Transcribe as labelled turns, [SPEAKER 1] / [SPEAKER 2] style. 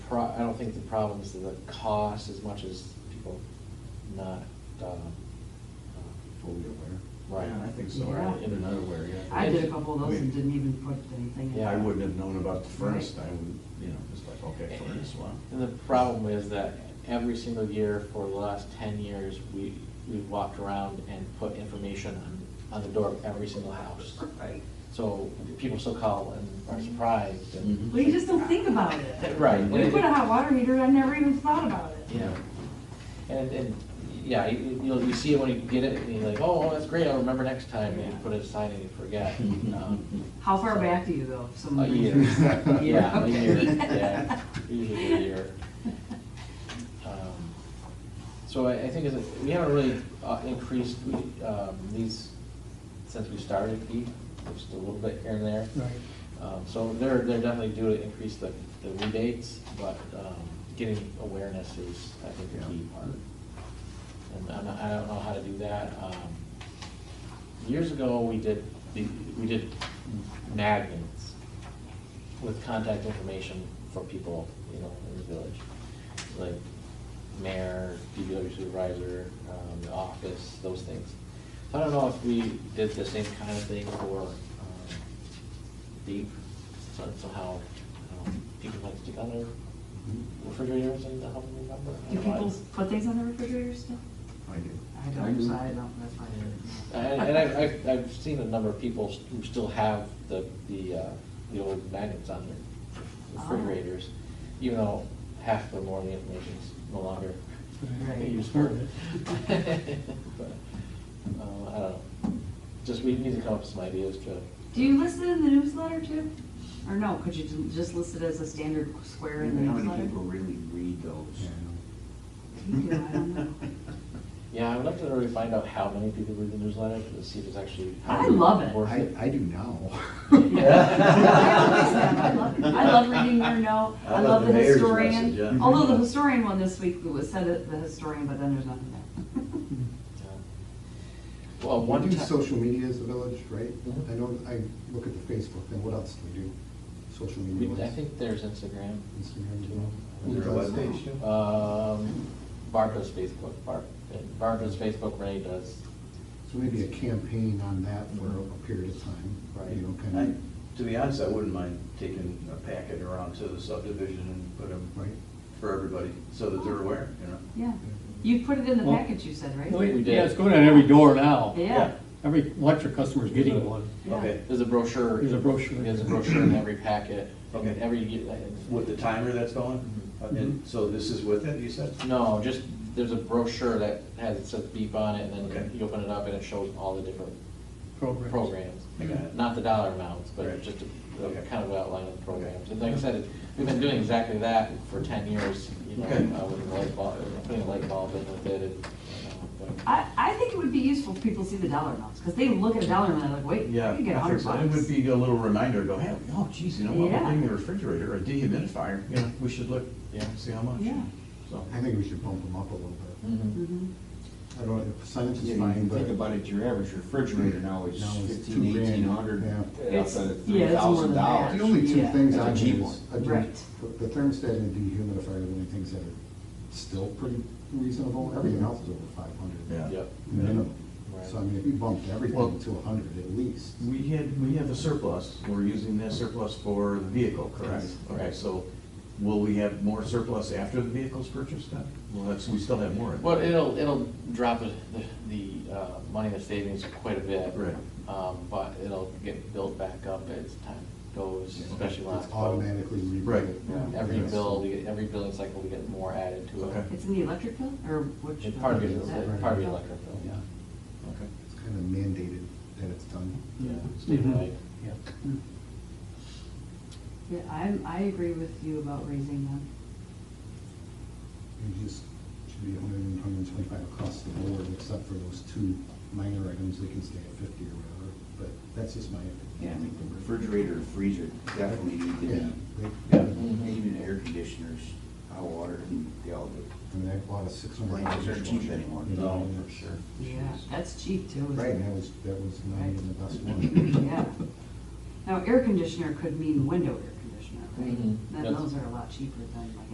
[SPEAKER 1] pro, I don't think the problem is the cost as much as people not, uh, uh,
[SPEAKER 2] Fully aware.
[SPEAKER 1] right.
[SPEAKER 2] Yeah, I think so,
[SPEAKER 3] Yeah.
[SPEAKER 2] Or in and out aware, yeah.
[SPEAKER 3] I did a couple of those and
[SPEAKER 2] I mean,
[SPEAKER 3] didn't even put anything. in.
[SPEAKER 1] Yeah.
[SPEAKER 2] I wouldn't have known about the furnace,
[SPEAKER 3] Right.
[SPEAKER 2] I would, you know, just like, okay, furnace, wow.
[SPEAKER 1] And the problem is that every single year for the last ten years, we, we've walked around and put information on, on the door of every single house.
[SPEAKER 3] Right.
[SPEAKER 1] So people still call and are surprised and.
[SPEAKER 3] Well, you just don't think about it.
[SPEAKER 1] Right.
[SPEAKER 3] We put a hot water meter, I never even thought about it.
[SPEAKER 1] Yeah. And, and, yeah, you, you know, you see it when you get it, and you're like, oh, that's great, I'll remember next time, and you put it aside and you forget. Um,
[SPEAKER 3] How far back do you go? if
[SPEAKER 1] A
[SPEAKER 3] someone
[SPEAKER 1] year.
[SPEAKER 3] brings you-
[SPEAKER 1] Yeah, a
[SPEAKER 3] Okay.
[SPEAKER 1] year, yeah, usually a year. Um, So I, I think is, we haven't really uh, increased, we, um, these, since we started, we, just a little bit here and there.
[SPEAKER 4] Right.
[SPEAKER 1] Um, so they're, they're definitely due to increase the, the rebates, but, um, getting awareness is, I think, the key part. And I'm not- I don't know how to do that. Um, Years ago, we did, the- we did magnets with contact information for people, you know, in the village. Like mayor, DPW supervisor, um, the office, those things. I don't know if we did the same kind of thing for, um, deep, so somehow, um, people like stick on their
[SPEAKER 4] Mm-hmm.
[SPEAKER 1] refrigerators and help them remember.
[SPEAKER 3] Do people put things on the refrigerator still?
[SPEAKER 2] I do.
[SPEAKER 3] I don't, so I don't, that's why. I
[SPEAKER 1] And,
[SPEAKER 3] didn't know.
[SPEAKER 1] and I've, I've, I've seen a number of people who still have the, the, uh, the old magnets on
[SPEAKER 3] Ah.
[SPEAKER 1] their refrigerators, even though half the more of the information's no longer
[SPEAKER 3] Right.
[SPEAKER 1] useful. But, uh, I don't know, just, we need to come up with some ideas to,
[SPEAKER 3] Do you list it in the newsletter too? Or no, could you ju- just list it as a standard square in the
[SPEAKER 5] How many
[SPEAKER 3] newsletter?
[SPEAKER 5] people really read
[SPEAKER 2] Yeah,
[SPEAKER 5] those?
[SPEAKER 3] You do, I don't know.
[SPEAKER 1] yeah, I would like to really find out how many people read the newsletter, to see if it's actually.
[SPEAKER 3] I love it.
[SPEAKER 2] I know.
[SPEAKER 1] worth
[SPEAKER 2] I, I do now.
[SPEAKER 3] I love it. I love reading your note,
[SPEAKER 5] I
[SPEAKER 3] I
[SPEAKER 5] love
[SPEAKER 3] love the
[SPEAKER 5] the mayor's
[SPEAKER 3] historian,
[SPEAKER 5] message, yeah.
[SPEAKER 3] although the historian one this week was said it, the historian, but then there's nothing there.
[SPEAKER 1] Yeah. Well, one
[SPEAKER 4] We do
[SPEAKER 1] ti-
[SPEAKER 4] social media as a village, right?
[SPEAKER 1] Mhm.
[SPEAKER 4] I know, I look at the Facebook, and what else do we do? Social media
[SPEAKER 1] we- I
[SPEAKER 4] ones?
[SPEAKER 1] think there's Instagram.
[SPEAKER 4] Instagram, you know?
[SPEAKER 5] Is there
[SPEAKER 4] Who
[SPEAKER 5] a
[SPEAKER 4] does that?
[SPEAKER 5] webpage too?
[SPEAKER 1] Um, Barb does Facebook, Barb, Barb does Facebook, Renee does.
[SPEAKER 4] So maybe a campaign on that for a period of time,
[SPEAKER 1] Right.
[SPEAKER 4] you know,
[SPEAKER 5] I,
[SPEAKER 4] kind
[SPEAKER 5] to be honest, I wouldn't mind taking a packet around to the subdivision and put them
[SPEAKER 4] of, right?
[SPEAKER 5] for everybody, so that they're aware, you know?
[SPEAKER 3] Yeah, you put it in the
[SPEAKER 6] Well-
[SPEAKER 3] package you said, right?
[SPEAKER 6] No,
[SPEAKER 1] we
[SPEAKER 6] it-
[SPEAKER 1] did.
[SPEAKER 6] Yeah, it's going on every door now.
[SPEAKER 3] Yeah,
[SPEAKER 6] Every electric customer's getting one.
[SPEAKER 3] Yeah.
[SPEAKER 5] Okay,
[SPEAKER 1] There's a brochure.
[SPEAKER 6] There's a brochure.
[SPEAKER 1] There's a brochure in every packet.
[SPEAKER 5] Okay.
[SPEAKER 1] And Every, ye- like,
[SPEAKER 5] with the timer that's going, and so this is with it, you said?
[SPEAKER 1] no, just, there's a brochure that has, it says beep on it, and then
[SPEAKER 5] Okay.
[SPEAKER 1] you open it up and it shows all the different
[SPEAKER 6] Programs.
[SPEAKER 1] programs.
[SPEAKER 5] I got it.
[SPEAKER 1] Not the dollar amounts, but
[SPEAKER 5] Right.
[SPEAKER 1] just a- a
[SPEAKER 5] Okay.
[SPEAKER 1] kind of outline of the programs. And like I said, it- we've been doing exactly that for ten years, you know,
[SPEAKER 5] Okay.
[SPEAKER 1] uh, with the light bulb, putting a light bulb in with it and, you know, but-
[SPEAKER 3] I, I think it would be useful if people see the dollar amounts, because they look at a dollar amount and they're like, wait,
[SPEAKER 5] Yeah.
[SPEAKER 3] you could get a
[SPEAKER 5] I
[SPEAKER 3] hundred
[SPEAKER 5] think so.
[SPEAKER 3] bucks.
[SPEAKER 5] It would be a little reminder, to go, hey, oh geez, you know, what,
[SPEAKER 3] Yeah.
[SPEAKER 5] we're putting a refrigerator, or a dehumidifier, you know, we should look,
[SPEAKER 1] Yeah.
[SPEAKER 5] see how much.
[SPEAKER 3] Yeah.
[SPEAKER 5] So,
[SPEAKER 4] I think we should bump them up a little bit.
[SPEAKER 5] Mm-hmm.
[SPEAKER 1] Mhm.
[SPEAKER 3] Mhm.
[SPEAKER 4] I don't, know, percentage
[SPEAKER 7] Yeah,
[SPEAKER 4] is
[SPEAKER 7] you
[SPEAKER 4] fine,
[SPEAKER 7] can
[SPEAKER 4] but.
[SPEAKER 7] think about it, your average refrigerator now is
[SPEAKER 4] Now it's
[SPEAKER 7] fifteen,
[SPEAKER 4] two grand.
[SPEAKER 7] eighteen hundred,
[SPEAKER 4] Yeah.
[SPEAKER 7] outside of
[SPEAKER 3] Yeah,
[SPEAKER 7] three
[SPEAKER 3] it's more
[SPEAKER 7] thousand
[SPEAKER 3] than that.
[SPEAKER 7] dollars.
[SPEAKER 4] The only two
[SPEAKER 3] Yeah.
[SPEAKER 4] things
[SPEAKER 7] That's
[SPEAKER 4] I
[SPEAKER 7] a cheap
[SPEAKER 4] do
[SPEAKER 7] one.
[SPEAKER 4] is, I do-
[SPEAKER 3] Right.
[SPEAKER 4] the thermostat and the dehumidifier are the only things that are still pretty reasonable, everything else is over five hundred.
[SPEAKER 5] yeah.
[SPEAKER 1] Yep.
[SPEAKER 4] minimum.
[SPEAKER 1] Right.
[SPEAKER 4] So I mean, if you bumped
[SPEAKER 5] Well-
[SPEAKER 4] everything to a hundred at least.
[SPEAKER 5] We had, we have a surplus, we're using that surplus for the vehicle, correct?
[SPEAKER 1] Yes.
[SPEAKER 5] Okay, so will we have more surplus after the vehicle's purchased then? Well, that's, we still have more. in there.
[SPEAKER 1] Well, it'll, it'll drop the, the, the uh, money in the savings quite a bit.
[SPEAKER 5] Right.
[SPEAKER 1] Um, But it'll get built back up as time goes, especially last.
[SPEAKER 4] It's automatically rebuilt.
[SPEAKER 5] Right.
[SPEAKER 4] Yeah.
[SPEAKER 1] Every
[SPEAKER 4] Yes.
[SPEAKER 1] bill, we get- every billing cycle, we get more added to it.
[SPEAKER 5] Okay.
[SPEAKER 3] It's in the electric bill, or which?
[SPEAKER 1] It's part of
[SPEAKER 3] bill
[SPEAKER 1] your,
[SPEAKER 3] is that?
[SPEAKER 1] part of your electric bill, yeah.
[SPEAKER 5] Okay.
[SPEAKER 4] It's kind of mandated that it's done.
[SPEAKER 1] Yeah,
[SPEAKER 6] Mhm.
[SPEAKER 1] statewide.
[SPEAKER 3] Yeah, I, I agree with you about raising them.
[SPEAKER 4] It just should be 100 and 125 across the board, except for those two minor items, they can stay at fifty or whatever, but that's just my
[SPEAKER 7] Yeah, I
[SPEAKER 4] opinion.
[SPEAKER 7] think the refrigerator, and freezer definitely need to
[SPEAKER 4] Yeah,
[SPEAKER 7] be,
[SPEAKER 4] they, I
[SPEAKER 7] even air conditioners, hot water, and they all do.
[SPEAKER 4] mean, I bought a six hundred.
[SPEAKER 7] Blankets aren't cheap anymore.
[SPEAKER 5] No, for sure.
[SPEAKER 3] Yeah, that's cheap too. isn't
[SPEAKER 4] Right,
[SPEAKER 3] it?
[SPEAKER 4] and that was, that was not even the best one.
[SPEAKER 3] Yeah. Now, air conditioner could mean window air conditioner, right?
[SPEAKER 1] Mhm.
[SPEAKER 3] Then
[SPEAKER 1] That's-
[SPEAKER 3] those are a lot cheaper than like